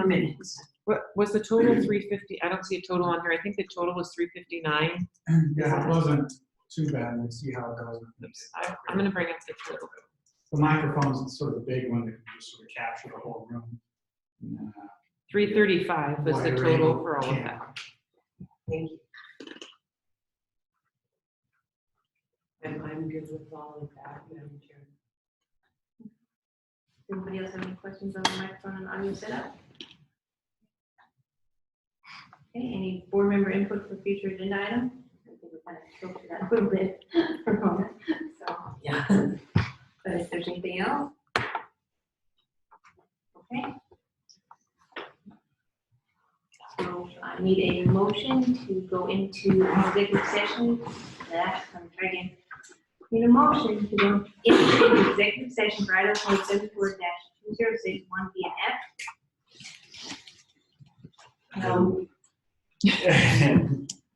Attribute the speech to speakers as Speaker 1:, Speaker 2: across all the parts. Speaker 1: a minute.
Speaker 2: Um, What, was the total three fifty? I don't see a total on here. I think the total was three fifty-nine.
Speaker 3: Yeah, it wasn't too bad. We'll see how it goes. with this.
Speaker 2: I'm gonna bring up the total.
Speaker 3: The microphone's sort of the big one that can just sort of capture the whole room.
Speaker 2: Three thirty-five was the
Speaker 3: Wider
Speaker 2: total
Speaker 3: angle
Speaker 2: for all of
Speaker 3: camera.
Speaker 2: that.
Speaker 1: Thank you. I'm, I'm good with all of that, Madam Chair.
Speaker 4: Anybody else have any questions on the microphone and audio setup? Okay, any board member input for future agenda item? I think we kind of spoke to that a little bit for a moment, so,
Speaker 1: Yeah.
Speaker 4: but if there's anything else? Okay. So I need a motion to go into executive session. That, I'm trying. Need a motion to go into executive session for item code seventy-four dash two zero six one B and F.
Speaker 1: Um,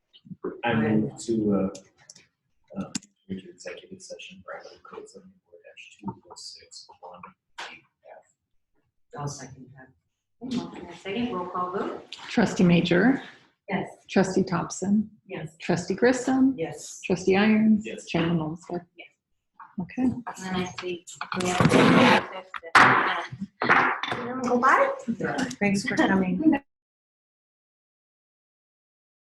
Speaker 5: I move to, uh, uh, enter executive session, for Idaho code seventy-four two four six one eight F.
Speaker 1: I'll second that.
Speaker 4: Motion and second, roll call vote.
Speaker 6: Trustee Major,
Speaker 4: Yes.
Speaker 6: trustee Thompson,
Speaker 1: Yes.
Speaker 6: trustee Grissom,
Speaker 1: Yes.
Speaker 6: trustee Irons.
Speaker 5: Yes.
Speaker 6: Chairman Olmstead.
Speaker 4: Yes.
Speaker 6: Okay.
Speaker 4: And then I see we have. Remember, go by?
Speaker 1: Thanks for coming.